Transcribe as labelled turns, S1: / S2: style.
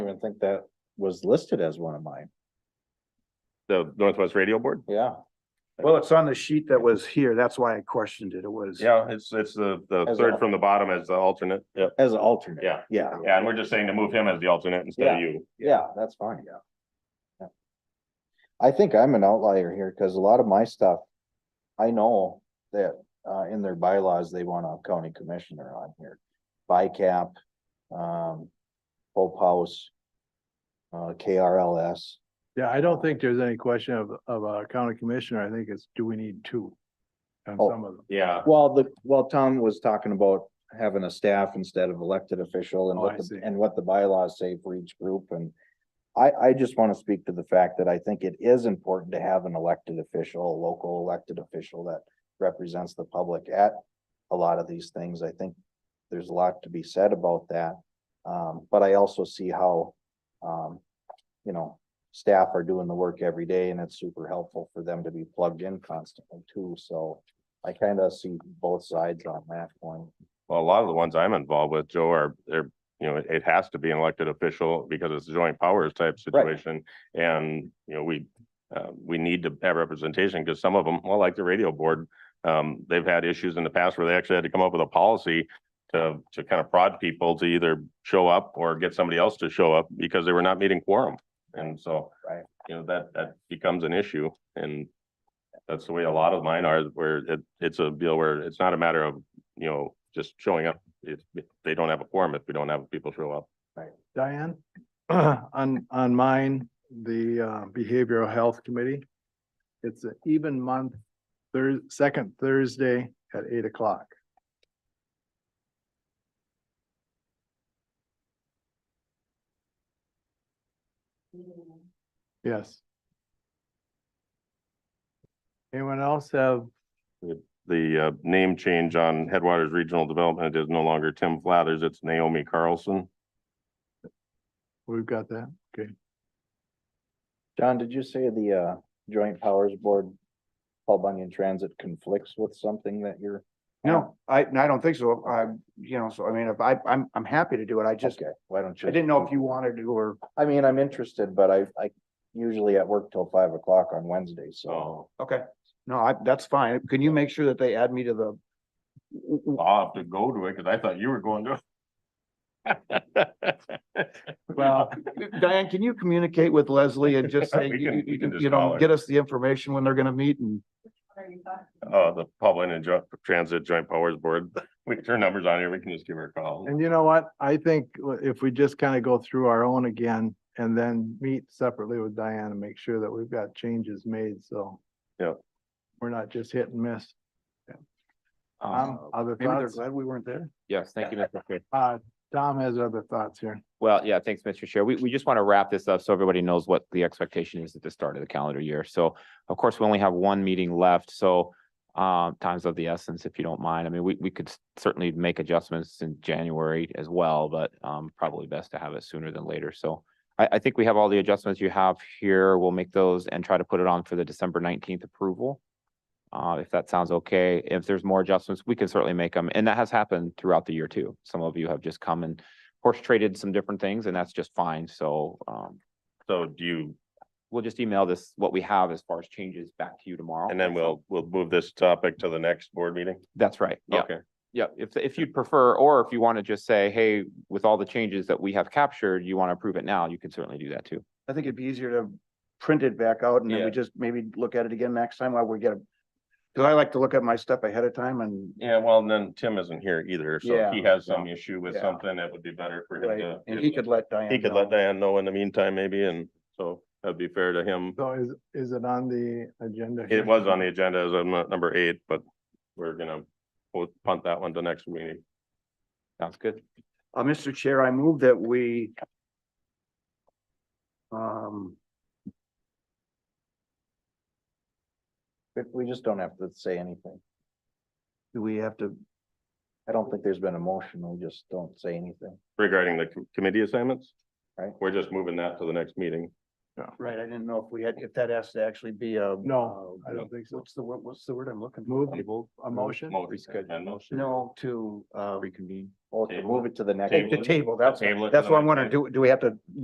S1: even think that was listed as one of mine.
S2: the Northwest Radio Board?
S1: Yeah,
S3: Well, it's on the sheet that was here. That's why I questioned it. It was.
S2: Yeah, it's, it's the, the
S1: As
S2: third
S1: a-
S2: from the bottom as the alternate. Yeah.
S1: as an alternate.
S2: Yeah.
S1: Yeah,
S2: Yeah, and we're just saying to move him as the alternate instead of you.
S1: yeah, that's fine. Yeah. Yeah. I think I'm an outlier here because a lot of my stuff, I know that uh in their bylaws, they want a county commissioner on here. BICAP, um, Hope House, uh, KRLS.
S4: Yeah, I don't think there's any question of, of a county commissioner. I think it's, do we need two? On
S1: Oh.
S4: some of them.
S2: Yeah,
S1: Well, the, well, Tom was talking about having a staff instead of elected official and
S4: Oh,
S1: what,
S4: I
S1: the-
S4: see.
S1: and what the bylaws say for each group and. I, I just want to speak to the fact that I think it is important to have an elected official, a local elected official that represents the public at a lot of these things. I think there's a lot to be said about that. Um, but I also see how, um, you know, staff are doing the work every day and it's super helpful for them to be plugged in constantly too, so. I kind of see both sides on that point.
S2: well, a lot of the ones I'm involved with, Joe, are, they're, you know, it has to be an elected official because it's a joint powers type
S1: Right.
S2: situation. And, you know, we, uh, we need to have representation because some of them, well, like the radio board, um, they've had issues in the past where they actually had to come up with a policy to, to kind of prod people to either show up or get somebody else to show up because they were not meeting quorum. And so.
S1: Right.
S2: You know, that, that becomes an issue and that's the way a lot of mine are, where it, it's a deal where it's not a matter of, you know, just showing up. It, they don't have a quorum if we don't have people show up.
S4: Diane, on, on mine, the uh, Behavioral Health Committee. It's an even month, Thurs second Thursday at eight o'clock. Yes. Anyone else have
S2: The uh, name change on Headwaters Regional Development is no longer Tim Flathers, it's Naomi Carlson.
S4: We've got that, okay.
S1: John, did you say the uh joint powers board? Paul Bunyan Transit conflicts with something that you're?
S3: No, I, no, I don't think so. I, you know, so I mean, if I, I'm, I'm happy to do it. I just,
S1: Okay, why don't you?
S3: I didn't know if you wanted to or.
S1: I mean, I'm interested, but I I usually at work till five o'clock on Wednesday, so.
S2: Oh.
S3: Okay. No, I, that's fine. Can you make sure that they add me to the?
S2: I'll have to go to it because I thought you were going to.
S3: Well, Diane, can you communicate with Leslie and just say,
S2: We
S3: you,
S2: can-
S3: you-
S2: we can
S3: you-
S2: just
S3: you
S2: call
S3: know,
S2: her.
S3: get us the information when they're gonna meet and.
S2: Uh, the Public and Joint- Transit Joint Powers Board, we can turn numbers on here, we can just give her a call.
S4: And you know what? I think if we just kind of go through our own again and then meet separately with Diane and make sure that we've got changes made, so.
S2: Yeah.
S4: We're not just hit and miss.
S3: Um,
S4: Um, other
S3: Maybe they're
S4: thoughts?
S3: glad we weren't there.
S5: Yes, thank you, Mr. Chair.
S4: Uh, Tom has other thoughts here.
S5: Well, yeah, thanks, Mr. Chair. We, we just want to wrap this up so everybody knows what the expectation is at the start of the calendar year. So of course, we only have one meeting left, so um, times of the essence, if you don't mind. I mean, we, we could s- certainly make adjustments in January as well, but um, probably best to have it sooner than later. So I, I think we have all the adjustments you have here. We'll make those and try to put it on for the December nineteenth approval. Uh, if that sounds okay, if there's more adjustments, we can certainly make them. And that has happened throughout the year too. Some of you have just come and horse traded some different things and that's just fine. So um,
S2: So do you,
S5: we'll just email this, what we have as far as changes back to you tomorrow.
S2: and then we'll, we'll move this topic to the next board meeting?
S5: That's right. Yeah,
S2: Okay.
S5: yeah. If, if you'd prefer, or if you want to just say, hey, with all the changes that we have captured, you want to approve it now, you can certainly do that too.
S3: I think it'd be easier to print it back out and then
S2: Yeah.
S3: we just maybe look at it again next time while we get a. Cause I like to look at my stuff ahead of time and.
S2: Yeah, well, and then Tim isn't here either, so if he
S3: Yeah.
S2: has some issue with
S3: Yeah.
S2: something, it would be better for him
S3: Right,
S2: to.
S3: and he could let Diane.
S2: He could
S3: know.
S2: let Diane know in the meantime, maybe, and so that'd be fair to him.
S4: So is, is it on the agenda? here?
S2: It was on the agenda as a nu- number eight, but we're gonna po- punt that one to next meeting.
S5: Sounds good.
S3: Uh, Mr. Chair, I move that we. Um,
S1: But we just don't have to say anything.
S3: do we have to,
S1: I don't think there's been a motion. We just don't say anything.
S2: Regarding the com- committee assignments?
S1: Right.
S2: We're just moving that to the next meeting.
S3: right, I didn't know if we had, if that has to actually be a.
S4: No,
S3: uh,
S4: I don't think so.
S3: What's the word, what's the word I'm looking? for?
S4: Move a motion?
S3: No, to, uh,
S5: Reconvene.
S1: Well, to move it to the next.
S2: Table.
S3: to table, that's,
S2: Table it to
S3: that's
S2: the
S3: what I'm
S2: next
S3: wondering, do, do we have to